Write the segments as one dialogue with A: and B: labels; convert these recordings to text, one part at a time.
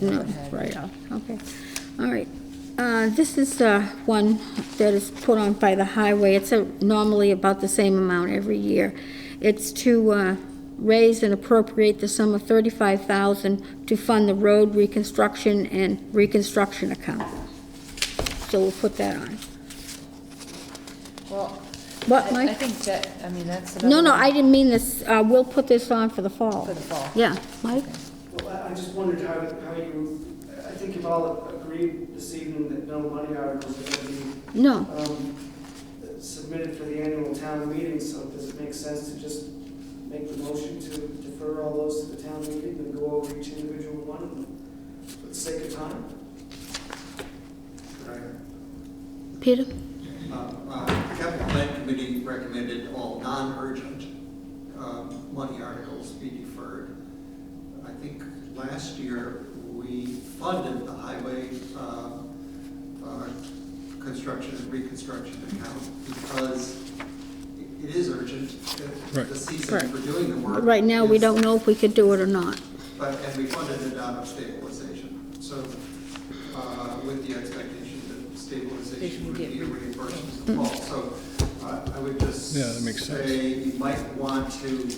A: No, Oh, right, okay. All right. Uh, This is uh, one that is put on by the highway. It's uh, normally about the same amount every year. It's to uh, raise and appropriate the sum of 35000 to fund the road reconstruction and reconstruction account. So we'll put that on.
B: Well,
A: What,
B: I-
A: Mike?
B: I think that, I mean, that's another.
A: No, no,
B: one.
A: I didn't mean this, uh, we'll put this on for the fall.
B: For the fall.
A: Yeah, Mike?
C: Well, I- I just wondered how, how you, I think you've all agreed this evening that no money articles are going to be
A: No.
C: um, submitted for the annual town meeting, so does it make sense to just make the motion to defer all those to the town meeting and go over each individual one for the sake of time?
A: Peter?
D: Uh, uh, The capital plan committee recommended all non-urgent um, money articles be deferred. I think last year, we funded the highway uh, uh, construction and reconstruction account because it- it is urgent, uh, the season
A: Right.
D: for doing the work.
A: Right now, we
D: is-
A: don't know if we could do it or not.
D: But, and we funded it out of stabilization, so uh, with the expectation that stabilization would be a reimbursement to Paul. So uh, I would just
E: Yeah, that makes sense.
D: say you might want to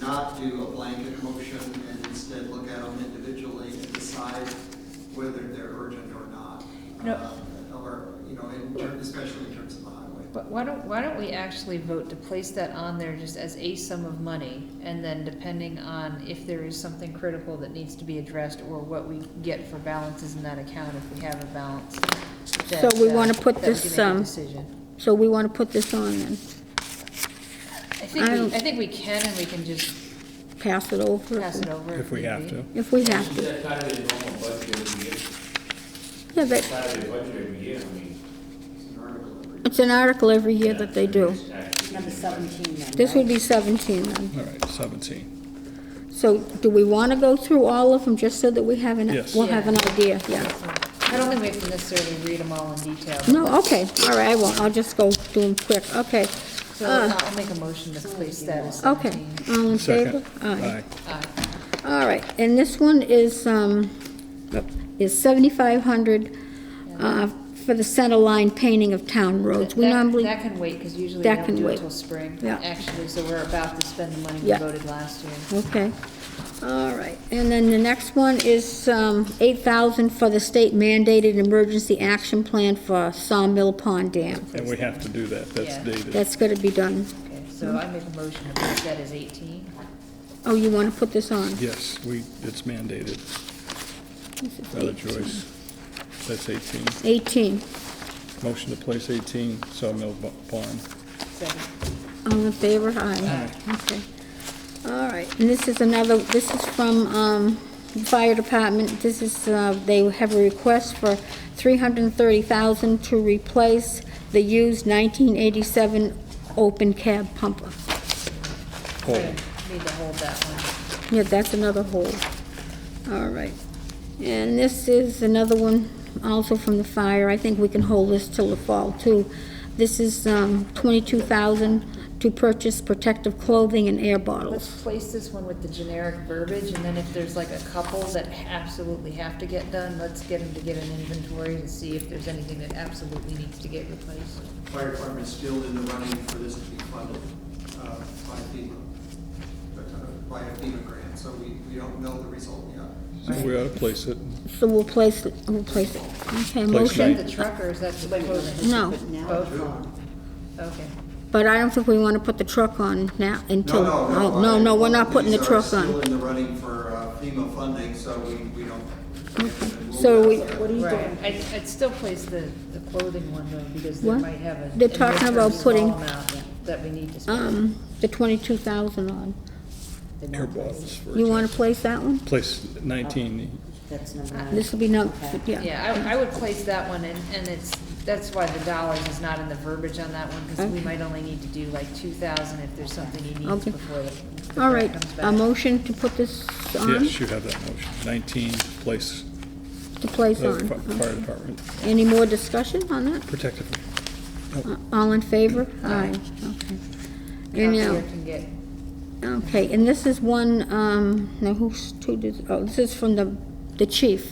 D: not do a blanket motion and instead look at them individually and decide whether they're urgent or not.
B: No.
D: Uh, Or, you know, in ter- especially in terms of the highway.
B: But why don't, why don't we actually vote to place that on there just as a sum of money? And then depending on if there is something critical that needs to be addressed or what we get for balances in that account, if we have a balance.
A: So
B: uh,
A: we wanna put this, um,
B: Decision.
A: So we want to put this on and
B: I think,
A: I
B: we-
A: don't-
B: I think we can and we can just
A: pass it over?
B: pass it over.
E: If we
B: need
E: have
B: be.
E: to.
A: If we have
F: Isn't
A: to.
F: that part of their normal budget every year?
A: Yeah, that,
F: Part of their budget every year, I mean.
D: It's an
A: it's an
D: article every
A: article every year that they do.
F: it's actually in
G: Number
F: their budget.
G: 17 then,
A: This would
G: right?
A: be 17 then.
E: All right, 17.
A: So do we want to go through all of them just so that we have an,
E: Yes.
A: we'll have an idea? Yeah.
B: I don't think we have to necessarily read them all in detail.
A: No, okay, all right, I won't, I'll just go do them quick, okay.
B: So I'll make a motion to place that as
A: uh, Okay,
B: seventeen. uh,
A: all in favor?
E: Second.
B: Aye.
A: All right, and this one is, um, is 7,500 uh, for the center line painting of town roads. We
B: That-
A: normally,
B: That can wait, because usually
A: That
B: we
A: can
B: don't do
A: wait.
B: it till spring,
A: Yeah.
B: actually, so we're about to spend the money we
A: Yeah.
B: voted last year.
A: okay, all right. And then the next one is um, 8,000 for the state mandated emergency action plan for Sawmill Pond Dam.
E: And we have to do that, that's
B: Yeah.
E: dated.
A: That's gonna be done.
B: Okay, so I make a motion to place that as eighteen.
A: Oh, you wanna put this on?
E: Yes, we, it's mandated,
A: This is
E: not a
A: 18.
E: choice. That's 18.
A: 18,
E: Motion to place 18, Sawmill Bo- Pond.
B: Second.
A: all in favor, aye. Okay. All right, and this is another, this is from, um, the fire department, this is, uh, they have a request for 330,000 to replace the used 1987 open cab pumper.
E: Hold.
B: Need to hold that one.
A: Yeah, that's another hole. All right. And this is another one, also from the fire. I think we can hold this till the fall, too. This is um, 22,000 to purchase protective clothing and air bottles.
B: Let's place this one with the generic verbiage, and then if there's like a couple that absolutely have to get done, let's get them to get an inventory and see if there's anything that absolutely needs to get replaced.
D: fire department's still in the running for this to be funded uh, by FEMA, uh, by a FEMA grant, so we, we don't know the result
E: So
D: yet.
E: we ought to place it.
A: So we'll place it, we'll place it. Okay,
B: Is that
A: motion,
B: the truckers, that's the
G: Wait, wait,
B: clothing?
G: wait,
A: No.
G: but now
B: Both.
G: it's on.
B: Okay.
A: but I don't think we want to put the truck on now
D: No,
A: until...
D: no, no.
A: oh, No,
D: I-
A: no, we're not putting the
D: these are
A: truck on.
D: Still in the running for uh, FEMA funding, so we, we don't. we'll
A: So we-
D: have
G: What
D: to-
G: are you
B: Right,
G: doing?
B: I'd, I'd still place the, the clothing one though, because they
A: What?
B: might have a.
A: They're talking
B: a
A: about
B: small
A: putting-
B: amount That we need to spend.
A: Um, The 22,000 on.
G: They're not
E: Air
G: placed.
E: bottles for
A: You want
E: example.
A: to place that one?
E: Place 19,
G: That's number nine.
A: This will be, no, yeah.
B: Yeah, I, I would place that one and, and it's, that's why the dollars is not in the verbiage on that one, because we
A: Okay.
B: might only need to do like two thousand if there's something he needs
A: Okay.
B: before the. the
A: All
B: grant
A: right,
B: comes
A: a
B: back.
A: motion to put this on?
E: yes, you have that motion. 19, place
A: To place
E: the
A: on.
E: fi- fire department
A: Any more discussion on that?
E: protective.
A: Uh, All in favor? Aye.
B: Aye.
A: Okay. And
B: Copier
A: now,
B: can get,
A: okay, and this is one, um, now who's, who did, oh, this is from the, the chief.